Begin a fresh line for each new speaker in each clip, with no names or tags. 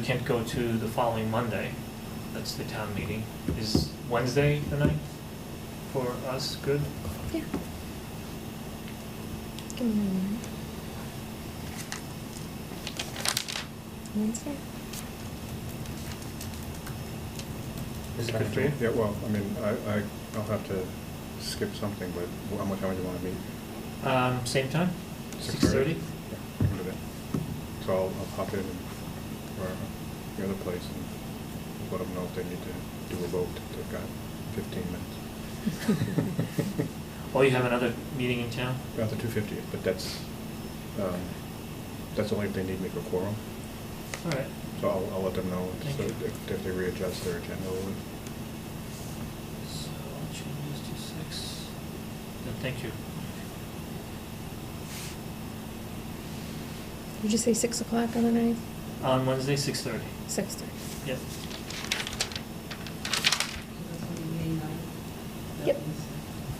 We can't go to the following Monday, that's the town meeting. Is Wednesday the night for us good?
Yeah. Give me a minute. Wednesday?
Is it good for you?
Yeah, well, I mean, I, I, I'll have to skip something, but how much time do you wanna meet?
Um, same time, six thirty?
Yeah, I can do that. So I'll, I'll pop in and, or the other place and let them know if they need to do a vote, they've got fifteen minutes.
Oh, you have another meeting in town?
About the two fiftieth, but that's, um, that's only if they need me for quorum,
All right,
so I'll, I'll let them know,
Thank
so
you.
if, if they readjust their agenda, we'll-
so I'll change this to six. No, thank you.
Did you say six o'clock on the ninth?
On Wednesday, six thirty,
Six thirty.
yep.
That's on the May ninth.
Yep.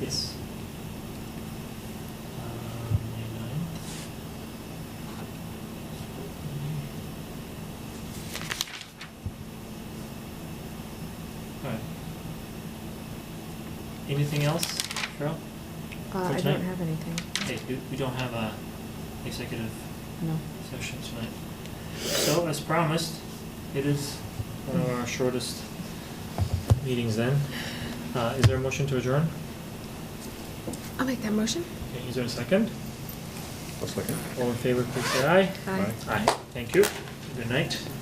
Yes. Uh, May ninth. All right. Anything else, Cheryl?
Uh,
For
I
tonight?
don't have anything.
Hey, we, we don't have a executive
No.
session tonight. So, as promised, it is one of our shortest meetings then. Uh, is there a motion to adjourn?
I'll make that motion.
Okay, Is there a second?
let's look at it.
All in favor, please say aye.
Aye.
Aye.
Aye. Thank you. Good night.